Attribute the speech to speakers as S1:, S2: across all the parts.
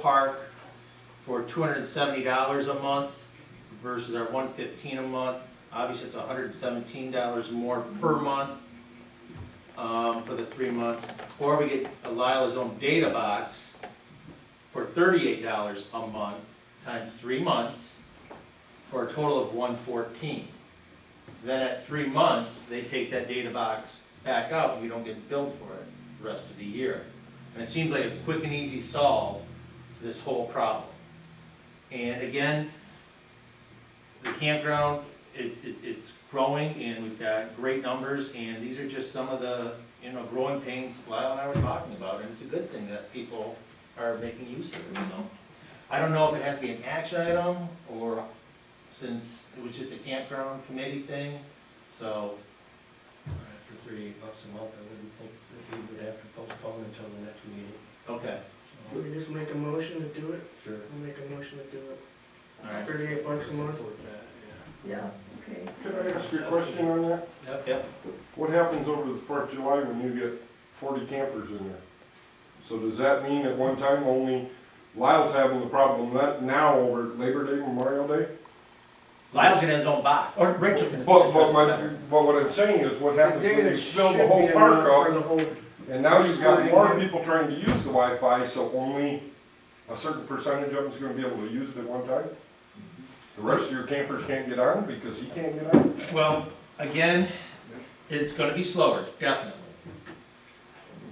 S1: park for two hundred and seventy dollars a month versus our one fifteen a month. Obviously, it's hundred and seventeen dollars more per month, um, for the three months. Or we get Lila's own data box for thirty-eight dollars a month times three months for a total of one fourteen. Then at three months, they take that data box back out, and we don't get billed for it the rest of the year. And it seems like a quick and easy solve to this whole problem. And again, the campground, it, it, it's growing and we've got great numbers and these are just some of the, you know, growing pains Lyle and I were talking about. And it's a good thing that people are making use of it, so. I don't know if it has to be an action item or since it was just a campground committee thing, so.
S2: For thirty-eight bucks a month, I wouldn't think that we would have to postpone until the next meeting.
S1: Okay,
S3: Do we just make a motion to do it?
S2: Sure.
S3: We'll make a motion to do it.
S1: all right.
S3: Thirty-eight bucks a month.
S2: Support that,
S4: Yeah, okay.
S5: Can I ask you a question on that?
S2: yeah. Yep.
S1: Yep,
S5: What happens over the Fourth of July when you get forty campers in there? So does that mean at one time only Lyle's having the problem that now over Labor Day, Memorial Day?
S1: Lyle's gonna have his own box, or Rachel can.
S5: But, but
S1: address it
S5: my,
S1: better.
S5: but what I'm saying is what happens when
S3: There
S5: you fill
S3: should
S5: the whole
S3: be
S5: park
S3: enough for
S5: up,
S3: the whole-
S5: and now you've got more people trying to use the Wi-Fi, so only a certain percentage of them's gonna be able to use it at one time? The rest of your campers can't get on because he can't get on?
S1: Well, again, it's gonna be slower, definitely.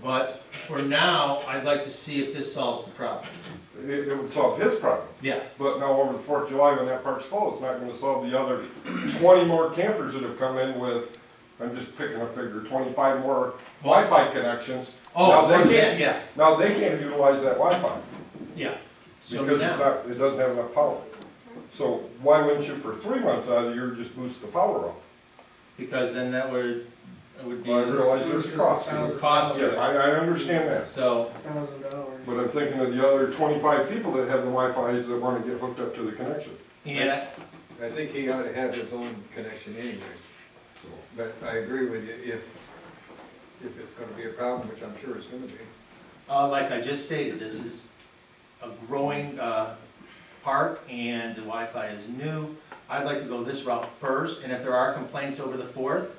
S1: But for now, I'd like to see if this solves the problem.
S5: It, it would solve his problem.
S1: Yeah,
S5: But now over the Fourth of July, when that park's full, it's not gonna solve the other twenty more campers that have come in with, I'm just picking a figure, twenty-five more Wi-Fi connections. Now
S1: oh,
S5: they
S1: well, yeah,
S5: can't-
S1: yeah,
S5: Now, they can't utilize that Wi-Fi
S1: yeah. So
S5: because it's
S1: now,
S5: not, it doesn't have enough power. So why wouldn't you for three months out of the year just boost the power up?
S1: because then that would, it would be.
S5: Well, I realize there's cost.
S1: Cost,
S5: Yes, I, I understand that,
S1: So,
S3: Thousand dollars.
S5: but I'm thinking of the other twenty-five people that have the Wi-Fi's that wanna get hooked up to the connection.
S1: and I-
S6: I think he ought to have his own connection anyways,
S5: So
S6: but I agree with you, if, if it's gonna be a problem, which I'm sure it's gonna be.
S1: Uh, like I just stated, this is a growing, uh, park and the Wi-Fi is new. I'd like to go this route first, and if there are complaints over the fourth,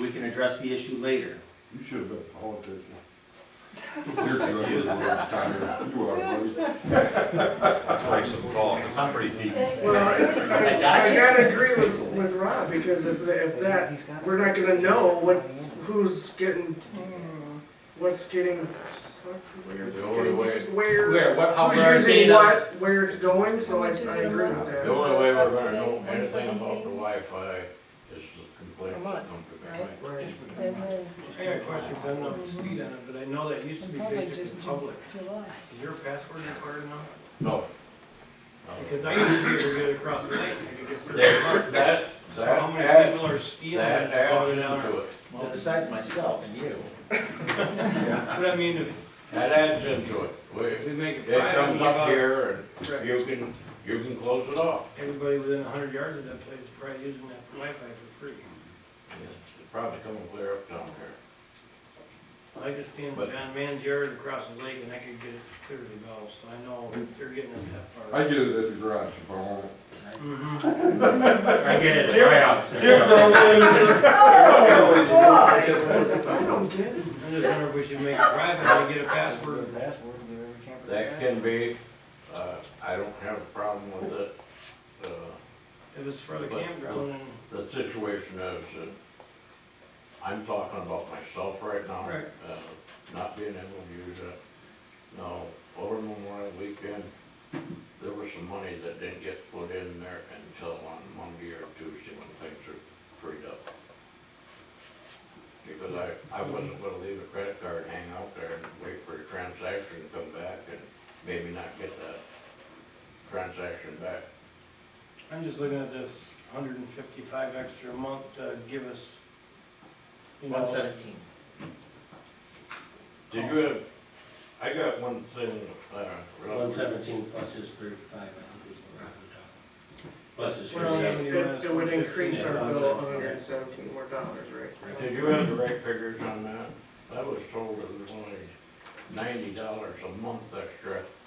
S1: we can address the issue later.
S5: You should have been a politician. You're good with words, Tyler. You are, buddy.
S7: Let's break some talk, it's pretty deep.
S3: Well, it's- I, I gotta agree with, with Rob, because if, the- if that, we're not gonna know what, who's getting,
S4: Hmm,
S3: what's getting, where it's
S7: The only
S3: getting,
S7: way-
S3: where.
S1: Where, what, how,
S3: Who's
S1: where our
S3: using
S1: data?
S3: what, where it's going, so I, I agree with
S7: The
S3: that.
S7: only way we're gonna know anything about the Wi-Fi is the complaints that come to me.
S3: Right.
S4: And then uh,
S2: I got questions, I'm not up to speed on it, but I know that used to be
S4: Probably
S2: basic
S4: just
S2: and
S4: do-
S2: public.
S4: July.
S2: Is your password required now?
S7: No.
S2: Because I used to be able to get it across the night, I could get through the
S7: There,
S2: park.
S7: that,
S2: So how
S7: that
S2: many
S7: adds,
S2: people are stealing
S7: that
S2: it,
S7: adds
S2: going down?
S7: into it.
S1: Well, besides myself and you.
S2: But I mean, if
S7: That adds into it.
S2: if
S7: We-
S2: we make it
S7: It
S2: private,
S7: comes
S2: give
S7: up
S2: out
S7: here and you can, you can close it off.
S2: everybody within a hundred yards of that place is probably using that Wi-Fi for free.
S7: It's probably coming clear up down here.
S2: I could stand
S7: But-
S2: John Man's yard across the lake and I could get it clearly now, so I know they're getting it that
S5: I
S2: far.
S5: get it at the garage if I want it.
S2: Mhm.
S1: I get it.
S5: Give-
S1: right out.
S4: Oh,
S3: I don't get it.
S2: I just wonder if we should make it private, I get a password.
S6: Password, we can't.
S7: That can be, uh, I don't have a problem with it. Uh,
S2: It was for the
S7: But-
S2: campground and,
S7: The situation is that I'm talking about myself right now.
S2: Right.
S7: uh, Not being able to use it. Now, over Memorial Weekend, there was some money that didn't get put in there until on Monday or Tuesday when things are freed up. Because I, I wasn't gonna leave a credit card hang out there and wait for a transaction to come back and maybe not get that transaction back.
S2: I'm just looking at this hundred and fifty-five extra a month to give us, you know.
S1: One seventeen.
S7: Did you have, I got one thing, uh.
S8: One seventeen plus his thirty-five, I think is what rounded up. Plus his
S3: Well,
S2: Yeah.
S8: thirty-seven.
S3: it, it would increase our bill a hundred
S1: Yeah.
S3: and seventeen more dollars, right?
S7: Did you have the right figures on that? I was told it was only ninety dollars a month extra